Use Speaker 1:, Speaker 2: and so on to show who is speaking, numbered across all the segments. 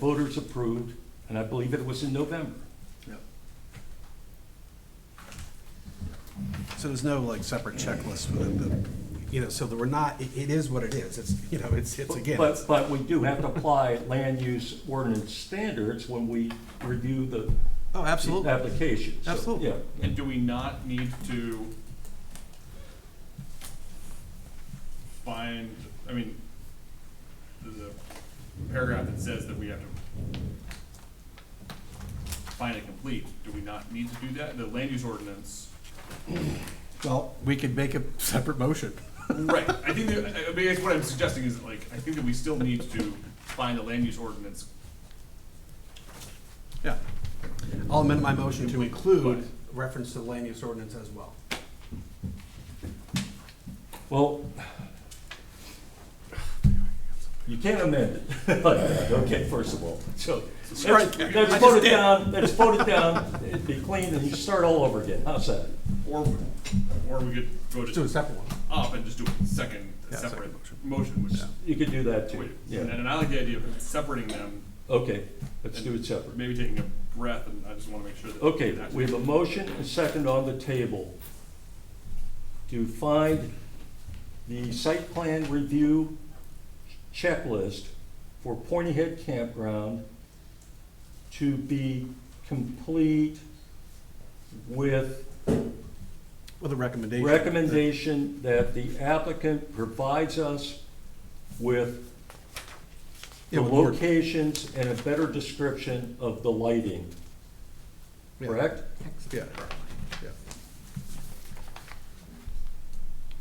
Speaker 1: voters approved, and I believe it was in November.
Speaker 2: So there's no like separate checklist within the, you know, so that we're not, it, it is what it is. It's, you know, it's, it's again,
Speaker 1: But,
Speaker 2: it's-
Speaker 1: but we do have to apply land use ordinance standards when we review the
Speaker 2: oh, absolutely.
Speaker 1: applications. So,
Speaker 2: Absolutely.
Speaker 1: Yeah,
Speaker 3: And do we not need to find, I mean, there's a paragraph that says that we have to find it complete. Do we not need to do that? The land use ordinance.
Speaker 2: Well, we could make a separate motion.
Speaker 3: Right, I think that, I I mean, that's what I'm suggesting is like, I think that we still need to find the land use ordinance.
Speaker 2: Yeah. I'll amend my motion to include
Speaker 3: Right.
Speaker 2: reference to the land use ordinance as well.
Speaker 1: well, you can't amend it, okay, first of all, so. let's-
Speaker 2: Strike it. I
Speaker 1: Let's
Speaker 2: just
Speaker 1: vote it
Speaker 2: did.
Speaker 1: down, let's vote it down, it'd be clean, and you start all over again, how's that?
Speaker 3: Or, or we could go
Speaker 2: Let's do a
Speaker 3: just
Speaker 2: separate one.
Speaker 3: up and just do a second,
Speaker 2: Yeah,
Speaker 3: separate
Speaker 2: second motion.
Speaker 3: motion, which,
Speaker 2: Yeah.
Speaker 1: You could do that too,
Speaker 3: wait, and
Speaker 1: yeah,
Speaker 3: and I like the idea of separating them
Speaker 1: okay, let's do it separate.
Speaker 3: maybe taking a breath, and I just want to make sure that.
Speaker 1: Okay, we have a motion and second on the table to find the site plan review checklist for Pointy Head Campground to be complete with
Speaker 2: With a recommendation.
Speaker 1: recommendation that the applicant provides us with
Speaker 2: Yeah,
Speaker 1: the
Speaker 2: with more-
Speaker 1: locations and a better description of the lighting,
Speaker 2: yeah,
Speaker 1: correct?
Speaker 2: Yeah, yeah.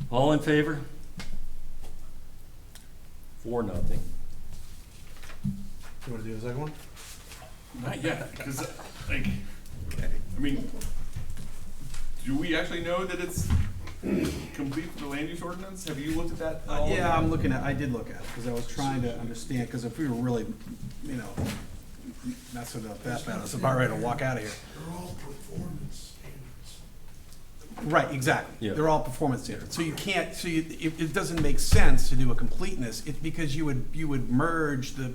Speaker 1: All in favor? Four, nothing.
Speaker 2: You wanna do the second one?
Speaker 3: Not yet, because, like,
Speaker 2: Okay.
Speaker 3: I mean, do we actually know that it's complete for the land use ordinance? Have you looked at that at
Speaker 2: Uh,
Speaker 3: all?
Speaker 2: Yeah, I'm looking at, I did look at it, because I was trying to understand, because if we were really, you know, messing up that bad, it's about ready to walk out of here.
Speaker 4: They're all performance standards.
Speaker 2: Right, exactly.
Speaker 1: Yeah.
Speaker 2: They're all performance standards. So you can't, so you, it, it doesn't make sense to do a completeness, it's because you would, you would merge the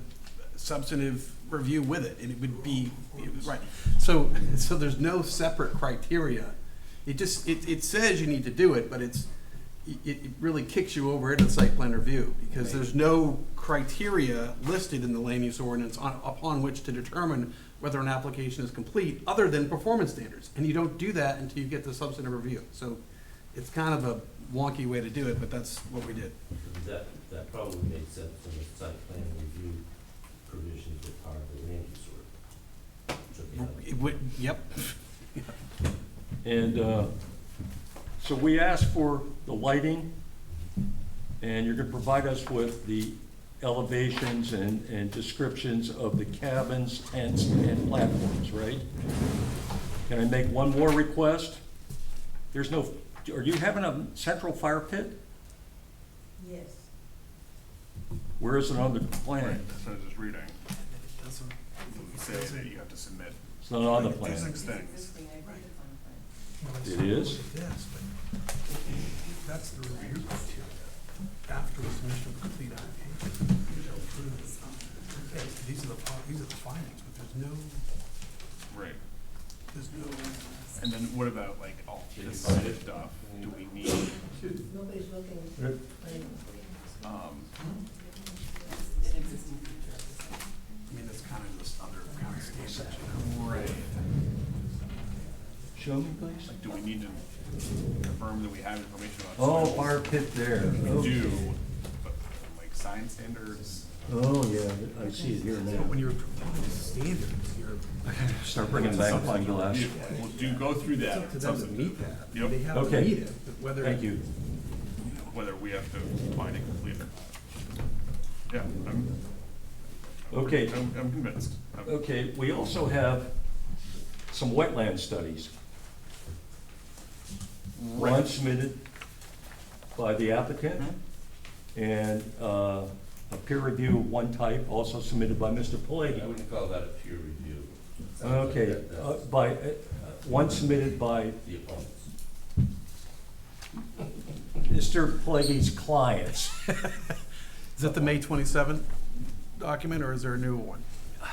Speaker 2: substantive review with it, and it would be, it was- right. So, so there's no separate criteria. It just, it, it says you need to do it, but it's, it, it really kicks you over into site plan review, because there's no criteria listed in the land use ordinance on, upon which to determine whether an application is complete, other than performance standards. And you don't do that until you get the substantive review. So it's kind of a wonky way to do it, but that's what we did.
Speaker 5: That, that probably makes sense from the site plan review provisions that part of the land use ordinance. Should be on
Speaker 2: It would- Yep,
Speaker 1: And uh, so we asked for the lighting, and you're gonna provide us with the elevations and, and descriptions of the cabins, tents, and platforms, right? Can I make one more request? There's no, are you having a central fire pit?
Speaker 6: Yes,
Speaker 1: Where is it on the plan?
Speaker 3: Right, that's what I was just reading. It says that you have to submit
Speaker 1: It's not on the plan.
Speaker 3: six
Speaker 6: it's
Speaker 3: things.
Speaker 6: existing, I agree with on plan.
Speaker 1: It is?
Speaker 4: Yes, but that's the review criteria. After the submission of complete application, they'll approve. Okay, These are the, po- these are the findings, but there's no,
Speaker 3: Right,
Speaker 4: there's no.
Speaker 3: and then what about like all this
Speaker 5: Can you find it?
Speaker 3: stuff? Do we need,
Speaker 6: Nobody's looking.
Speaker 1: Yep.
Speaker 3: um,
Speaker 2: I mean, that's kind of this other kind of standard, you know?
Speaker 3: right,
Speaker 1: Show me, please.
Speaker 3: like, do we need to confirm that we have information about
Speaker 1: Oh,
Speaker 3: soils?
Speaker 1: fire pit there.
Speaker 3: We do, but, like, sign standards?
Speaker 1: Oh, yeah, I see it here now.
Speaker 4: When you're applying standards, you're.
Speaker 1: Start bringing back my glass.
Speaker 3: Yeah, We'll do, go through that.
Speaker 4: To them to meet that.
Speaker 3: Yep.
Speaker 4: They have to
Speaker 1: Okay.
Speaker 4: meet it, but whether.
Speaker 1: Thank you.
Speaker 3: whether we have to find it complete or not. Yeah, I'm,
Speaker 1: Okay, Uh,
Speaker 3: I'm, I'm convinced. I'm-
Speaker 1: okay, we also have some wetland studies. One submitted by the applicant and uh, a peer review of one type also submitted by Mr.
Speaker 5: it. I
Speaker 1: Pelleggi.
Speaker 5: wouldn't call that a peer review.
Speaker 1: Okay,
Speaker 5: That-
Speaker 1: uh,
Speaker 5: that's
Speaker 1: by, uh, one submitted by
Speaker 5: The opponents.
Speaker 1: Mr. Pelleggi's clients.
Speaker 2: Is that the May twenty-seventh document, or is there a new one?
Speaker 1: Uh,